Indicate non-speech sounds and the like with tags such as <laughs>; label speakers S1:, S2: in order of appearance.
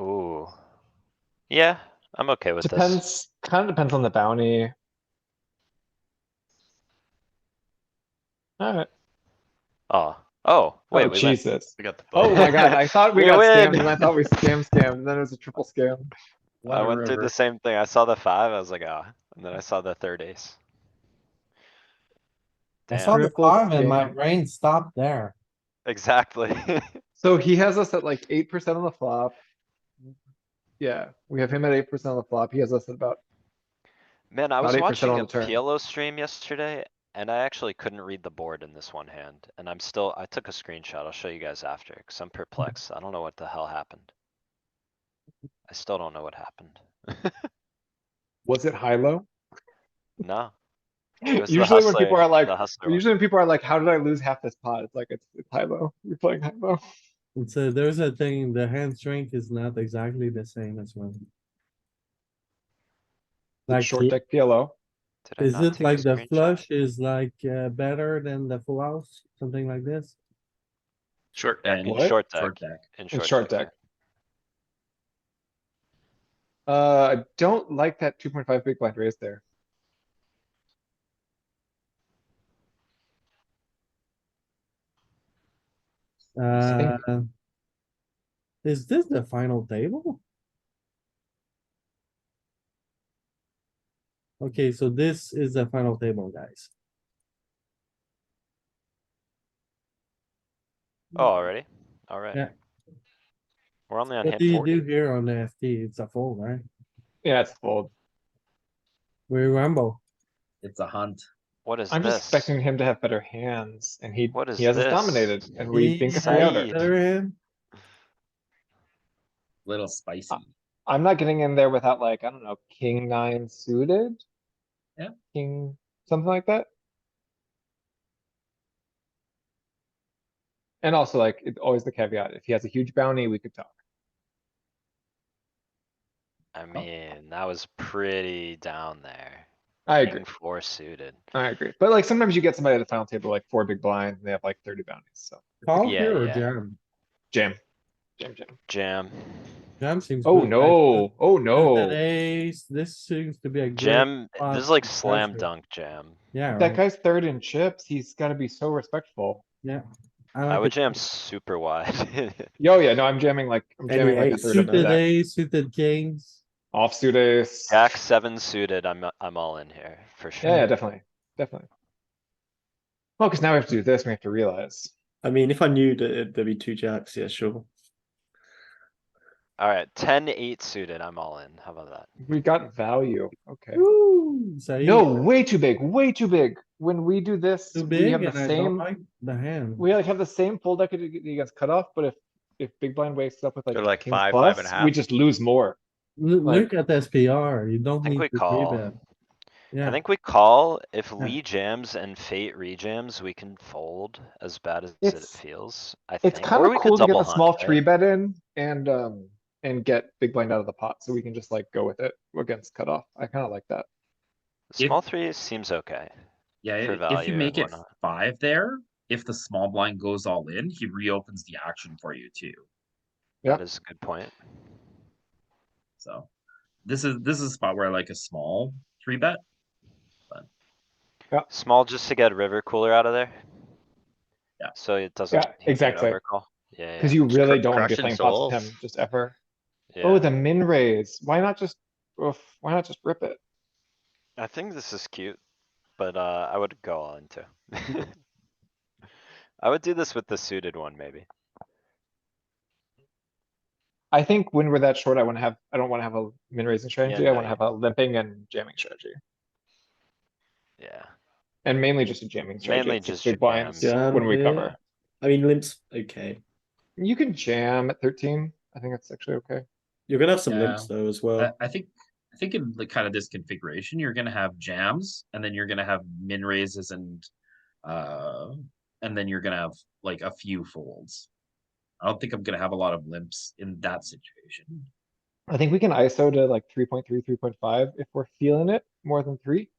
S1: Ooh. Yeah, I'm okay with this.
S2: Depends, kinda depends on the bounty. Alright,
S1: Oh, oh,
S2: oh
S1: wait, we went, <laughs>
S2: Jesus.
S3: We got the.
S2: Oh my god, I thought we
S1: We
S2: got
S1: win.
S2: scammed and I thought we scam scammed, and then it was a triple scam.
S1: <laughs> I went through the same thing. I saw the five, I was like, ah, and then I saw the third ace.
S4: I
S1: Damn.
S4: saw the
S2: Triple
S4: five and my
S2: scam.
S4: brain stopped there.
S1: Exactly. <laughs>
S2: So he has us at like eight percent on the flop. Yeah, we have him at eight percent on the flop. He has us at about,
S1: Man, I
S2: About
S1: was
S2: 8%
S1: watching
S2: on
S1: a
S2: the turn.
S1: PLO stream yesterday and I actually couldn't read the board in this one hand. And I'm still, I took a screenshot. I'll show you guys after, cause I'm perplexed. I don't know what the hell happened. I still don't know what happened.
S2: was it high low?
S1: No. it was the
S2: Usually when people
S1: hustler-
S2: are like,
S1: the hustler one.
S2: usually when people are like, how did I lose half this pot? It's like, it's, it's high low. You're playing high low.
S4: And so there's a thing, the hand strength is not exactly the same as when.
S2: Like
S4: Like,
S2: short deck PLO.
S1: Did I
S4: is
S1: not
S4: it
S1: take a
S4: like the
S1: screenshot?
S4: flush is like uh, better than the full house, something like this?
S3: Short deck.
S1: In short deck,
S3: Short deck.
S1: in
S2: It's
S1: short deck.
S2: Uh, I don't like that two point five big blind raise there.
S4: Uh. Is this the final table? Okay, so this is the final table, guys.
S1: Oh, already? Alright.
S4: Yeah.
S1: We're only on
S4: What
S1: hand
S4: do you do
S1: forty.
S4: here on the FT? It's a fold, right?
S2: Yeah, it's fold.
S4: We rumble.
S5: It's a hunt.
S1: What is
S2: I'm just
S1: this?
S2: expecting him to have better hands and he,
S1: What is
S2: he has us
S1: this?
S2: dominated and we think it's a
S1: Saeed.
S2: router.
S4: Better hand.
S5: Little spicy.
S2: I'm not getting in there without like, I don't know, king nine suited?
S5: Yeah.
S2: King, something like that? And also like, it's always the caveat, if he has a huge bounty, we could talk.
S1: I mean, that was pretty down there.
S2: I agree,
S1: King four suited.
S2: I agree. But like, sometimes you get somebody at the final table, like four big blinds, and they have like thirty bounties, so
S4: Call
S1: Yeah,
S4: here or
S1: yeah.
S4: jam?
S2: jam. Jam, jam.
S1: Jam.
S4: Jam seems.
S2: Oh,
S4: good, right?
S2: no, oh,
S4: This is an
S2: no.
S4: Ace, this seems to be a. good-
S1: Jam,
S4: Uh,
S1: this is like
S4: five,
S1: slam
S4: perfect.
S1: dunk jam.
S4: Yeah,
S2: That
S4: right.
S2: guy's third in chips, he's gotta be so respectful.
S4: Yeah.
S1: I
S4: like
S1: would
S4: it.
S1: jam super wide. <laughs>
S2: Yo, yeah, no, I'm jamming like, I'm jamming
S4: Anyway,
S2: like a third of the
S4: Suited
S2: deck.
S4: ace, suited kings.
S2: Offsuit ace. Yeah,
S1: Jack seven suited, I'm, I'm all in here, for sure.
S2: yeah, definitely, definitely. Well, cause now we have to do this, we have to realize.
S6: I mean, if I knew that it- there'd be two jacks, yeah, sure.
S1: Alright, ten eight suited, I'm all in. How about that?
S2: We got value, okay.
S4: Woo, so
S2: No,
S4: you-
S2: way too big, way too big. When we do this,
S4: Too
S2: we
S4: big
S2: have
S4: and
S2: the
S4: I don't
S2: same,
S4: like the hand.
S2: we like have the same fold equity against cutoff, but if, if big blind wakes up with
S3: They're like
S2: like king
S3: five, five and a
S2: plus, we
S3: half.
S2: just lose more.
S4: L-
S2: like-
S4: Look at SPR, you don't
S1: I think
S4: need
S1: we
S4: to do
S1: call.
S4: that.
S1: I
S4: Yeah,
S1: think we call, if Lee jams and Fate rejams, we can fold as bad as it
S2: It's-
S1: feels, I think.
S2: It's
S1: Or
S2: kinda
S1: we could
S2: cool to get
S1: double
S2: the
S1: hunt,
S2: small
S1: right?
S2: three bet in and, um, and get big blind out of the pot, so we can just like go with it against cutoff. I kinda like that.
S5: If-
S1: Small three seems okay.
S5: Yeah,
S1: For
S5: i- if
S1: value
S5: you
S1: and
S5: make it
S1: whatnot.
S5: five there, if the small blind goes all in, he reopens the action for you too.
S2: Yep.
S1: That is a good point.
S5: So this is this is a spot where I like a small three bet.
S1: Small just to get river cooler out of there.
S5: Yeah.
S1: So it doesn't.
S2: Yeah,
S1: he can't
S2: exactly.
S1: overcall. Yeah,
S2: Cause you
S3: Just
S2: really
S3: cr-
S2: don't wanna be
S3: crushing
S2: playing pots with
S3: souls.
S2: him, just ever.
S1: yeah,
S2: Oh,
S1: yeah.
S2: the min raise. Why not just, oof, why not just rip it?
S1: I think this is cute, but uh, I would go all
S2: <laughs>
S1: into. <laughs> I would do this with the suited one, maybe.
S2: I think when we're that short, I wanna have, I don't wanna have a min raising strategy. I
S1: no,
S2: wanna
S1: yeah.
S2: have a limping and jamming strategy.
S1: Yeah,
S2: And mainly just a jamming strategy.
S1: Mainly
S2: It's
S1: just
S2: big blinds
S6: jams.
S2: when we
S6: Jam,
S2: cover.
S6: I mean, limps, okay.
S2: You can jam at thirteen. I think that's actually okay.
S6: You're gonna have some
S5: Yeah.
S6: limps though as well.
S4: Uh,
S5: I, I think I think in like kind of this configuration, you're gonna have jams and then you're gonna have min raises and uh and then you're gonna have like a few folds. I don't think I'm gonna have a lot of limps in that situation.
S2: I think we can ISO to like 3.3, 3.5 if we're feeling it more than three.